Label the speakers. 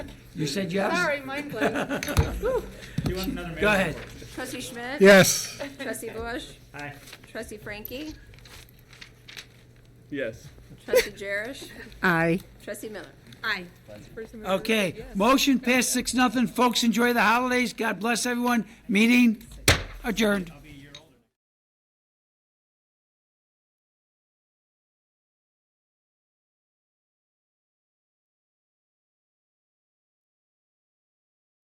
Speaker 1: You said yes?
Speaker 2: Sorry, mind blank.
Speaker 3: You want another
Speaker 1: Go ahead.
Speaker 2: Trustee Schmidt?
Speaker 4: Yes.
Speaker 2: Trustee Bush?
Speaker 3: Aye.
Speaker 2: Trustee Frankie?
Speaker 5: Yes.
Speaker 2: Trustee Jerish?
Speaker 6: Aye.
Speaker 2: Trustee Miller?
Speaker 6: Aye.
Speaker 1: Okay, motion passed six, nothing. Folks, enjoy the holidays. God bless everyone. Meeting adjourned.